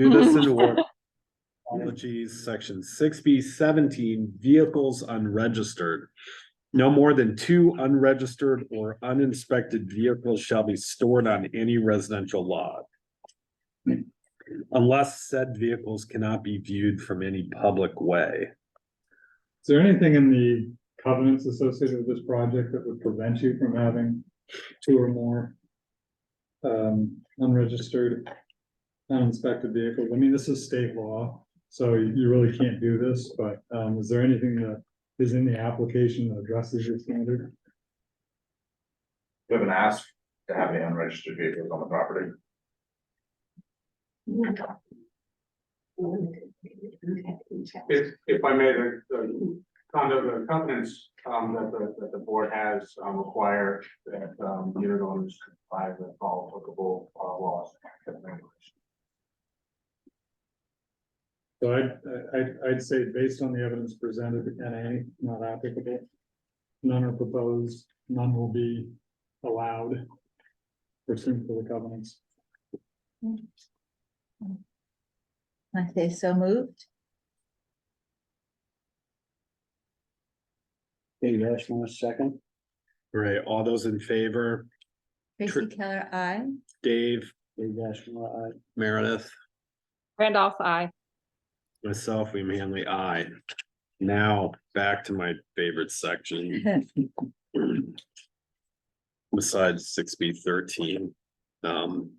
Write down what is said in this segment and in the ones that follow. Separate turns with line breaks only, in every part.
Do this in order. Apologies, section six B seventeen, vehicles unregistered. No more than two unregistered or uninspected vehicles shall be stored on any residential lot. Unless said vehicles cannot be viewed from any public way.
Is there anything in the covenants associated with this project that would prevent you from having two or more um, unregistered, uninspected vehicles? I mean, this is state law, so you you really can't do this, but um, is there anything that is in the application that addresses your standard?
You haven't asked to have any unregistered vehicles on the property.
If, if I may, the, the condo, the covenants, um, that the, that the board has, um, require that, um, unit owners comply with all applicable, uh, laws. and regulations.
So I'd, I'd, I'd say based on the evidence presented, NA, not applicable. None are proposed, none will be allowed pursuant to the covenants.
I say so moved.
Dave Ashmore, second.
Right, all those in favor, Tr-
Tracy Keller, I.
Dave,
Dave Ashmore, aye.
Meredith?
Randolph, I.
Myself, William Hanley, I. Now, back to my favorite section. Besides six B thirteen, um.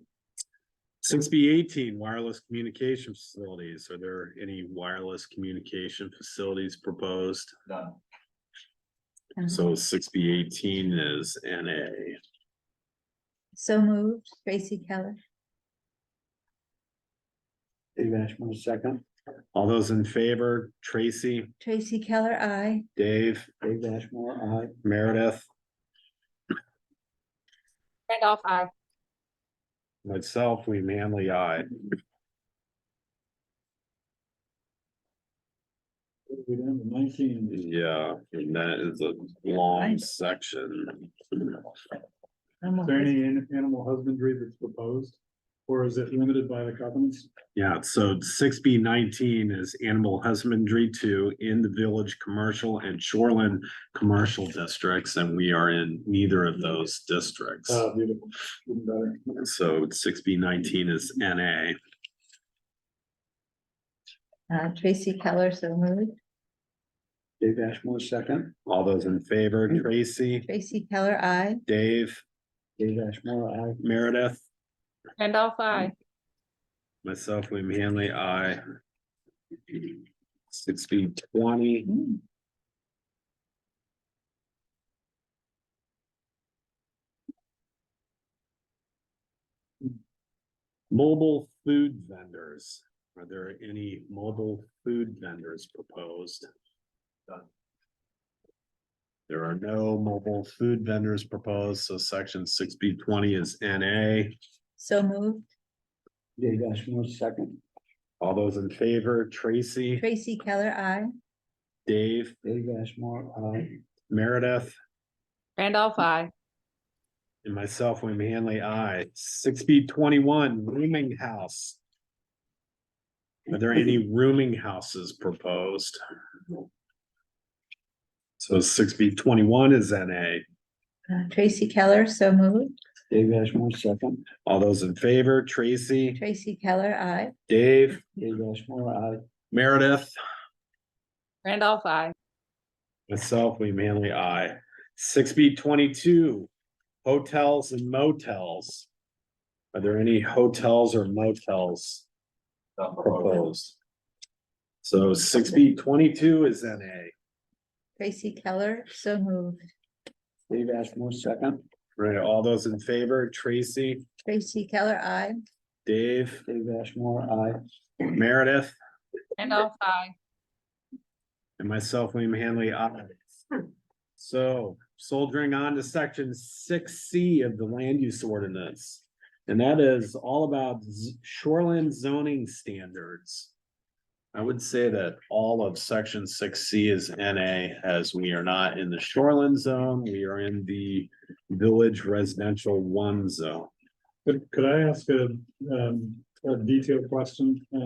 Six B eighteen, wireless communication facilities. Are there any wireless communication facilities proposed?
None.
So six B eighteen is N A.
So moved, Tracy Keller.
Dave Ashmore, second.
All those in favor, Tracy,
Tracy Keller, I.
Dave,
Dave Ashmore, aye.
Meredith,
Randolph, I.
myself, William Hanley, I.
We're down to nineteen.
Yeah, and that is a long section.
Is there any an- animal husbandry that's proposed? Or is it limited by the covenants?
Yeah, so six B nineteen is animal husbandry two in the village commercial and shoreline commercial districts, and we are in neither of those districts.
Uh,
Ah, beautiful, even better.
So six B nineteen is N A.
Uh, Tracy Keller, so moved.
Dave Ashmore, second. Mm-hmm.
All those in favor, Tracy,
Tracy Keller, I.
Dave,
Dave Ashmore, aye.
Meredith,
Randolph, I.
myself, William Hanley, I. Six B twenty, mobile food vendors. Are there any mobile food vendors proposed?
None.
There are no mobile food vendors proposed, so section six B twenty is N A.
So moved,
Dave Ashmore, second.
All those in favor, Tracy,
Tracy Keller, I.
Dave,
Dave Ashmore, aye.
Meredith,
Randolph, I.
and myself, William Hanley, I. Six B twenty-one, rooming house. Are there any rooming houses proposed? So six B twenty-one is N A.
Uh, Tracy Keller, so moved.
Dave Ashmore, second.
All those in favor, Tracy,
Tracy Keller, I.
Dave,
Dave Ashmore, aye.
Meredith,
Randolph, I.
myself, William Hanley, I. Six B twenty-two, hotels and motels. Are there any hotels or motels
None proposed.
proposed? So six B twenty-two is N A.
Tracy Keller, so moved.
Dave Ashmore, second.
Right, all those in favor, Tracy,
Tracy Keller, I.
Dave,
Dave Ashmore, aye.
Meredith,
Randolph, I.
and myself, William Hanley, I. So soldiering on to section six C of the land use ordinance. And that is all about z- shoreline zoning standards. I would say that all of section six C is NA as we are not in the shoreline zone. We are in the village residential one zone.
Could, could I ask a, um, a detailed question, uh,